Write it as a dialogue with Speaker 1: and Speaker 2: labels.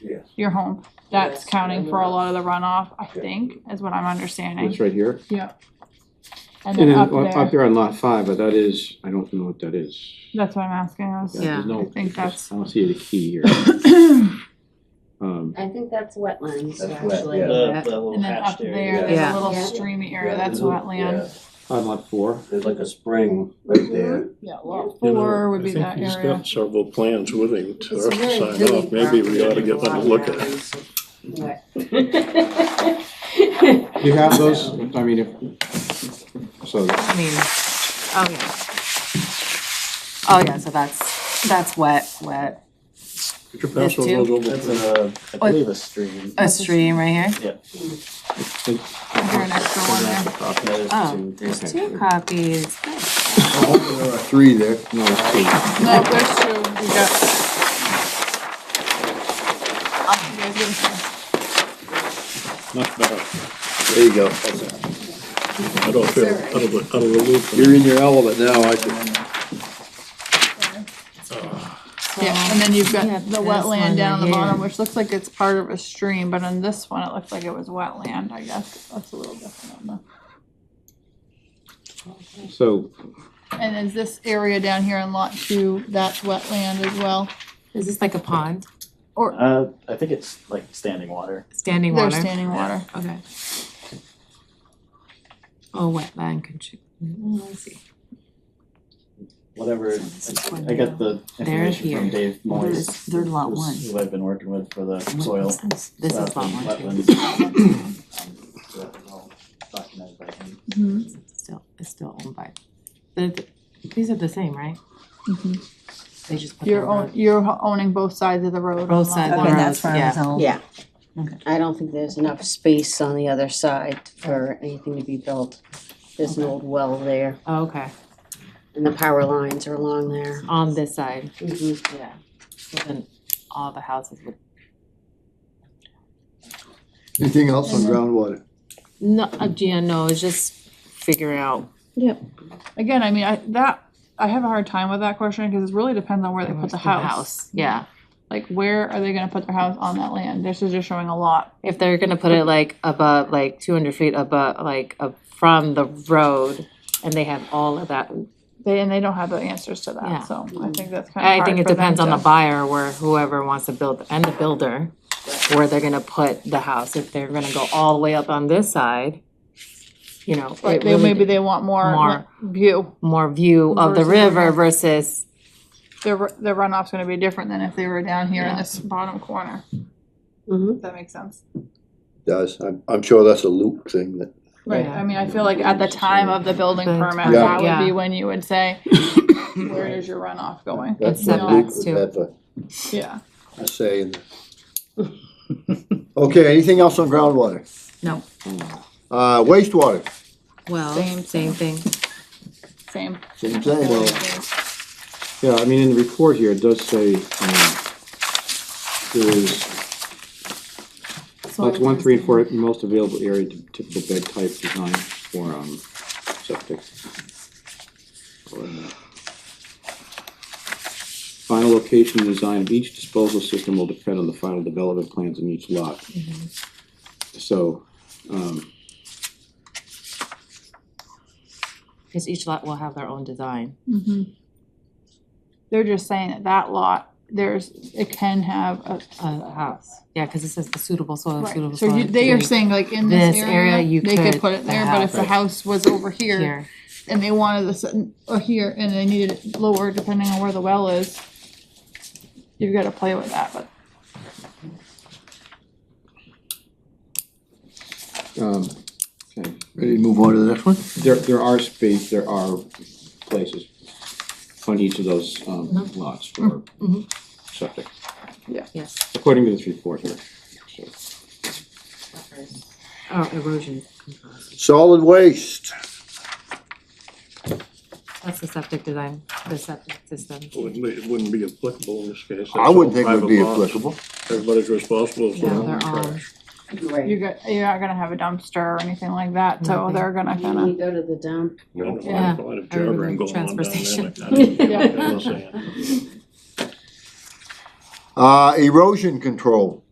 Speaker 1: Yes.
Speaker 2: your home. That's
Speaker 3: Yes,
Speaker 2: counting for a lot of the runoff, I
Speaker 1: Yeah.
Speaker 2: think, is what I'm understanding.
Speaker 4: That's right here.
Speaker 2: And
Speaker 4: And
Speaker 2: then
Speaker 4: then
Speaker 2: up
Speaker 4: o- up
Speaker 2: there,
Speaker 4: there on lot five, but that is, I don't know what that is.
Speaker 2: that's what I'm asking. I was-
Speaker 4: There's no-
Speaker 2: I think that's-
Speaker 4: I don't see a key here. Um,
Speaker 3: I think that's wetlands,
Speaker 1: That's wet,
Speaker 3: actually.
Speaker 1: yeah.
Speaker 5: The, the little
Speaker 2: And then up
Speaker 5: hatched area.
Speaker 2: there, there's
Speaker 3: Yeah.
Speaker 2: a little
Speaker 3: Yeah.
Speaker 2: streamy area,
Speaker 1: Yeah,
Speaker 2: that's
Speaker 1: there's a-
Speaker 2: wetland.
Speaker 1: yeah,
Speaker 4: on lot four,
Speaker 1: There's like a spring right there.
Speaker 2: Yeah, lot
Speaker 6: You know,
Speaker 2: four would
Speaker 6: I
Speaker 2: be
Speaker 6: think
Speaker 2: that
Speaker 6: He's
Speaker 2: area.
Speaker 6: got several plans with him to
Speaker 3: It's a very
Speaker 6: sign
Speaker 3: big
Speaker 6: off, maybe we
Speaker 3: property
Speaker 6: ought to get
Speaker 3: with a
Speaker 6: them
Speaker 3: lot of
Speaker 6: to look at it.
Speaker 3: grounds. Wet.
Speaker 4: you have those, I mean, if, so,
Speaker 3: I mean, oh yeah. Oh yeah, so that's, that's wet, wet,
Speaker 6: Could you
Speaker 3: There's
Speaker 6: pass
Speaker 3: two.
Speaker 6: those over?
Speaker 5: That's a, I believe a stream.
Speaker 3: a stream right here.
Speaker 2: Is there an extra one there?
Speaker 5: That is
Speaker 3: Oh,
Speaker 5: two.
Speaker 3: there's
Speaker 4: Okay.
Speaker 3: two copies.
Speaker 4: three there, no, eight.
Speaker 2: No, there's two, we got. Oh, you guys didn't see.
Speaker 6: Not bad.
Speaker 4: There you go.
Speaker 6: I don't feel, out of, the- out of the loop.
Speaker 4: You're in your element now, I think.
Speaker 2: Yeah, and then you've got
Speaker 3: Yeah,
Speaker 2: the
Speaker 3: this one
Speaker 2: wetland down
Speaker 3: right
Speaker 2: the
Speaker 3: here.
Speaker 2: bottom, which looks like it's part of a stream, but on this one, it looks like it was wetland, I guess, that's a little different on the.
Speaker 4: So,
Speaker 2: And is this area down here in lot two, that's wetland as well?
Speaker 3: Is this like a pond,
Speaker 5: Uh, I think it's like standing water.
Speaker 3: standing
Speaker 2: There's
Speaker 3: water?
Speaker 2: standing water.
Speaker 3: Okay. Oh, wetland contri- mm, I see.
Speaker 5: Whatever.
Speaker 3: So this one
Speaker 5: I got the
Speaker 3: They're
Speaker 5: information
Speaker 3: here.
Speaker 5: from Dave Moyes.
Speaker 3: they're lot
Speaker 5: who's-
Speaker 3: one.
Speaker 5: Who I've been working with for the
Speaker 3: What
Speaker 5: soil.
Speaker 3: is This This is
Speaker 5: stuff
Speaker 3: lot
Speaker 5: and
Speaker 3: one, too.
Speaker 5: wetlands. Um, so that's all documented by him.
Speaker 2: Mhm,
Speaker 3: It's Still, it's still owned by, the, the- these are the same, right?
Speaker 2: mhm.
Speaker 3: They just put
Speaker 2: You're
Speaker 3: them
Speaker 2: own,
Speaker 3: on
Speaker 2: you're ho- owning both sides of the road. on
Speaker 3: Both
Speaker 2: lot
Speaker 3: sides
Speaker 2: one.
Speaker 3: of
Speaker 7: Okay, that's where I was
Speaker 3: Yeah.
Speaker 7: all-
Speaker 8: Yeah.
Speaker 3: Okay.
Speaker 8: I don't think there's enough space on the other side for anything to be built. There's an old well there,
Speaker 3: Oh, Okay,
Speaker 8: and the power lines are along there.
Speaker 3: on this side,
Speaker 8: Mhm.
Speaker 3: yeah. So then all the houses would,
Speaker 4: anything else on groundwater?
Speaker 3: no, uh, yeah, no, it's just figuring out.
Speaker 2: Again, I mean, I, that, I have a hard time with that question, cause it really depends on where they put the house.
Speaker 3: Yeah,
Speaker 2: Like, where are they gonna put their house on that land? This is just showing a lot.
Speaker 3: if they're gonna put it like above, like two hundred feet above, like up from the road, and they have all of that.
Speaker 2: They, and they don't have the answers to
Speaker 3: Yeah.
Speaker 2: that, so I think that's kinda
Speaker 3: I think
Speaker 2: hard
Speaker 3: it
Speaker 2: for them
Speaker 3: depends on
Speaker 2: to-
Speaker 3: the buyer where whoever wants to build, and the builder, where they're gonna put the house, if they're gonna go all the way up on this side. You know,
Speaker 2: Right,
Speaker 3: it
Speaker 2: they,
Speaker 3: really-
Speaker 2: maybe they want more
Speaker 3: More.
Speaker 2: like, view.
Speaker 3: more view of the
Speaker 2: Versus
Speaker 3: river
Speaker 2: runoff.
Speaker 3: versus,
Speaker 2: Their, ru- their runoff's gonna be different than if they were down here in this bottom corner.
Speaker 8: Mhm.
Speaker 2: If that makes sense.
Speaker 9: Does, I'm, I'm sure that's a Luke thing that,
Speaker 2: Right,
Speaker 3: Yeah.
Speaker 2: I mean, I feel like at the time of the building
Speaker 3: The
Speaker 2: permit,
Speaker 3: time,
Speaker 2: that would
Speaker 3: yeah.
Speaker 2: be when you would say, where is your runoff going?
Speaker 9: that's
Speaker 2: It's
Speaker 9: what Luke
Speaker 3: setbacks
Speaker 9: would
Speaker 3: too.
Speaker 9: have a-
Speaker 2: Yeah.
Speaker 9: a say in. the- Okay, anything else on groundwater?
Speaker 3: No.
Speaker 9: Uh, wastewater,
Speaker 3: well,
Speaker 2: Same,
Speaker 3: same thing.
Speaker 2: Same.
Speaker 9: same thing.
Speaker 4: Yeah, I mean, in the report here, it does say, um, there is Lots one, three, and four, most available area to typical bed type design for, um, septic. Final location and design of each disposal system will depend on the final development plans in each lot. So, um,
Speaker 3: Cause each lot will have their own design.
Speaker 2: Mhm. They're just saying that that lot, there's, it can have a.
Speaker 3: a house. Yeah, because it says the suitable soil, suitable
Speaker 2: Right,
Speaker 3: soil.
Speaker 2: so you, they are saying like in this
Speaker 3: This area,
Speaker 2: area,
Speaker 3: you
Speaker 2: they could
Speaker 3: could
Speaker 2: put it
Speaker 3: the
Speaker 2: there, but if the house was over here
Speaker 3: Here,
Speaker 2: and they wanted this, uh, or here, and they needed it lower depending on where the well is, you've gotta play with that, but
Speaker 4: um, okay,
Speaker 9: Ready to move on to the next one?
Speaker 4: there, there are space, there are places on each of those, um, lots for
Speaker 3: Mhm.
Speaker 4: septic,
Speaker 3: yes.
Speaker 4: according to this report here.
Speaker 3: Oh, erosion control.
Speaker 9: Solid waste,
Speaker 3: That's the septic design, the septic system.
Speaker 6: Wouldn't be, it wouldn't be applicable in this case.
Speaker 9: I wouldn't think it would be
Speaker 6: Private lots.
Speaker 9: applicable.
Speaker 6: Everybody's responsible for
Speaker 3: Yeah,
Speaker 6: their own
Speaker 3: their own.
Speaker 6: trash.
Speaker 2: You're
Speaker 8: Right.
Speaker 2: go- you're not gonna have a dumpster or anything like that, so
Speaker 3: Nothing.
Speaker 2: they're gonna
Speaker 8: You
Speaker 2: kinda,
Speaker 8: go to the dump.
Speaker 6: I don't know,
Speaker 3: Yeah,
Speaker 6: I don't know,
Speaker 3: I remember
Speaker 6: jabbering going on down
Speaker 3: transfer
Speaker 6: there
Speaker 3: station.
Speaker 6: like that.
Speaker 2: Yeah.
Speaker 6: I'm just saying.
Speaker 9: Uh, erosion control,